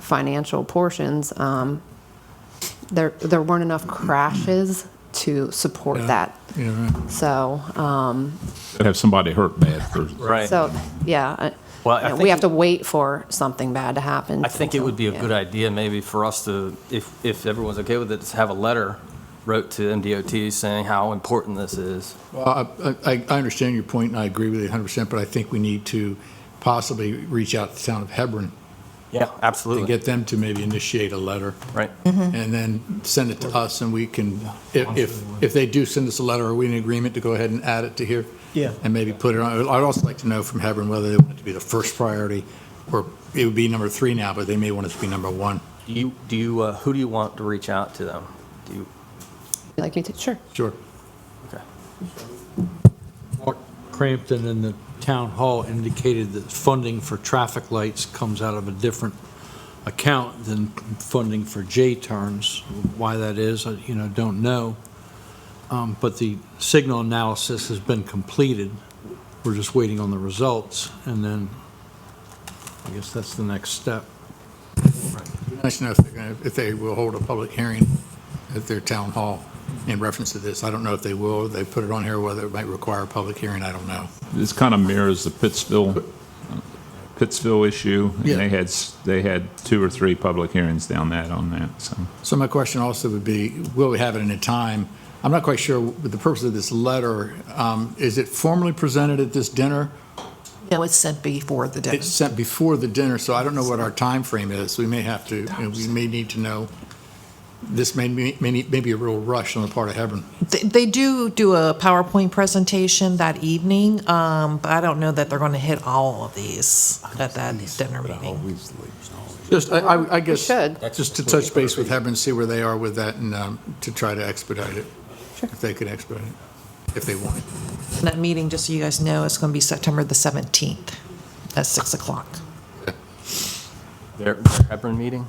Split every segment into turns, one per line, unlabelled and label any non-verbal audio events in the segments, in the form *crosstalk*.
financial portions, um, there, there weren't enough crashes to support that.
Yeah, right.
So, um,
have somebody hurt bad. for-
Right.
so, yeah. I-
Well, I
you know, We
think
have
it-
to wait for something bad to happen.
I think it would be a
Yeah.
good idea maybe for us to, if, if everyone's okay with it, to have a letter wrote to MDOT saying how important this is.
Well, I, I- I understand your point, and I agree with it 100%, but I think we need to possibly reach out to the town of Hebron
Yeah,
and
absolutely.
get them to maybe initiate a letter.
Right.
And then send it to us, and we can, if, if- if they do send us a letter, are we in agreement to go ahead and add it to here?
Yeah.
And maybe put it on, I'd also like to know from Hebron whether they want it to be the first priority, or it would be number three now, but they may want it to be number one.
Do you, do you, uh, who do you want to reach out to them? Do you,
You'd Like me to, sure.
Sure.
okay.
Mark Crampton in the town hall indicated that funding for traffic lights comes out of a different account than funding for J-turns. Why that is, I, you know, don't know. Um, But the signal analysis has been completed. We're just waiting on the results, and then I guess that's the next step.
It'd be Nice to know if they're gonna, Uh, if they will hold a public hearing at their town hall in reference to this. I don't know if they will, they put it on here, whether it might require a public hearing, I don't know.
This kind of mirrors the Pittsville, Pittsville issue. And
Yeah.
they had, s- they had two or three public hearings down that on that, so.
So my question also would be, will we have it in a time? I'm not quite sure, with the purpose of this letter, um, is it formally presented at this dinner?
No, it's sent before the day.
It's sent before the dinner, so I don't know what our time frame is. We may have to, you know, we may need to know. This may, be- may, need- may be a real rush on the part of Hebron.
They- They do do a PowerPoint presentation that evening, um, but I don't know that they're going to hit all of these at that dinner meeting.
Just, I- I, I guess.
should.
Just to touch base with Hebron, see where they are with that and um, to try to expedite it. If they could expedite it, if they want. it.
And That meeting, just so you guys know, is going to be September the 17th at 6 o'clock.
Their their Hebron meeting?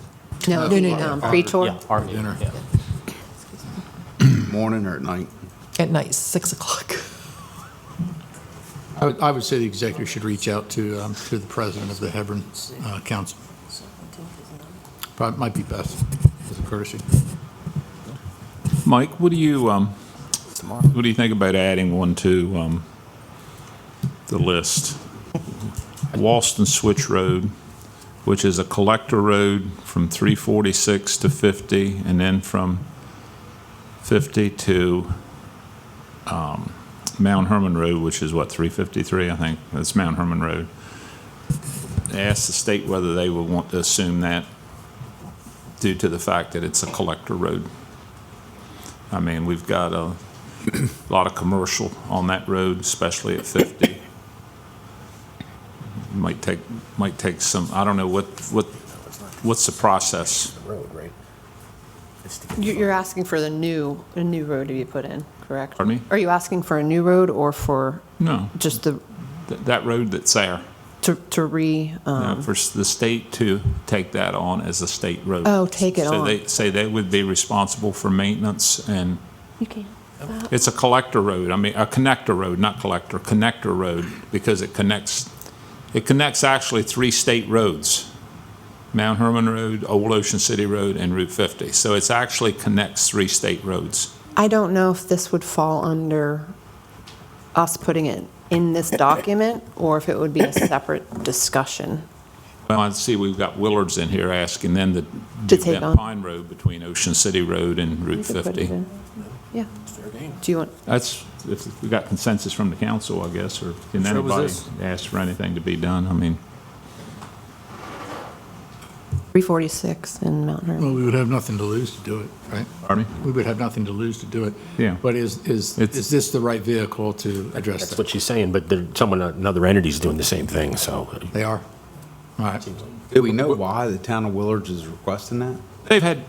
No,
No,
the
no, no.
um, pre-tour.
Yeah, our meeting,
Dinner.
yeah.
morning or at night?
At night, 6 o'clock. *laughs*
I would, I would say the executive should reach out to, um, to the president of the Hebron uh, Council. Probably might be best as a courtesy.
Mike, what do you, um, what do you think about adding one to, um, the list? Walston Switch Road, which is a collector road from three forty-six to fifty, and then from fifty to, um, Mount Herman Road, which is what, three fifty-three, I think, that's Mount Herman Road. Ask the state whether they would want to assume that due to the fact that it's a collector road. I mean, we've got a lot of commercial on that road, especially at 50. Might take, might take some, I don't know, what, what, what's the process?
Road, right? It's to get
You- You're asking for the new, a new road to be put in, correct?
Pardon me?
Are you asking for a new road or for
No,
just the,
th- that road that's there,
to to re, um,
Now, for s- the state to take that on as a state road.
Oh, take it
So
on.
they, say they would be responsible for maintenance and
You can.
It's a collector road, I mean, a connector road, not collector, connector road, because it connects, it connects actually three state roads. Mount Herman Road, Old Ocean City Road, and Route 50. So it's actually connects three state roads.
I don't know if this would fall under us putting it in this document or if it would be a separate discussion.
Well, I see we've got Willards in here asking them to
To
do
take
that
on.
Pine Road between Ocean City Road and
We
Route
could put it
50.
in. Yeah. Do you want,
That's, if we got consensus from the council, I guess, or can
So was
anybody
this-
ask for anything to be done? I mean,
346 in Mount Herman?
Well, we would have nothing to lose to do it, right?
pardon me?
We would have nothing to lose to do it.
Yeah.
But is, is,
It's-
is this the right vehicle to address
That's
that?
what she's saying, but there, someone, another entity's doing the same thing, so.
They are? All right.
Do we know why the town of Willards is requesting that?
They've had,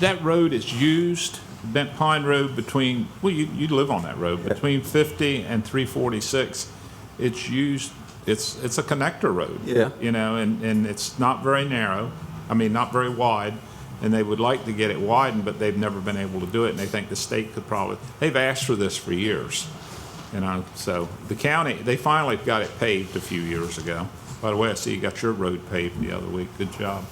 that road is used, Bent Pine Road between, well, you, you live on that road, between 50 and 346. It's used, it's, it's a connector road.
Yeah.
You know, and, and it's not very narrow, I mean, not very wide, and they would like to get it widened, but they've never been able to do it, and they think the state could probably, they've asked for this for years. You know, so the county, they finally got it paved a few years ago. By the way, I see you got your road paved the other week, good job.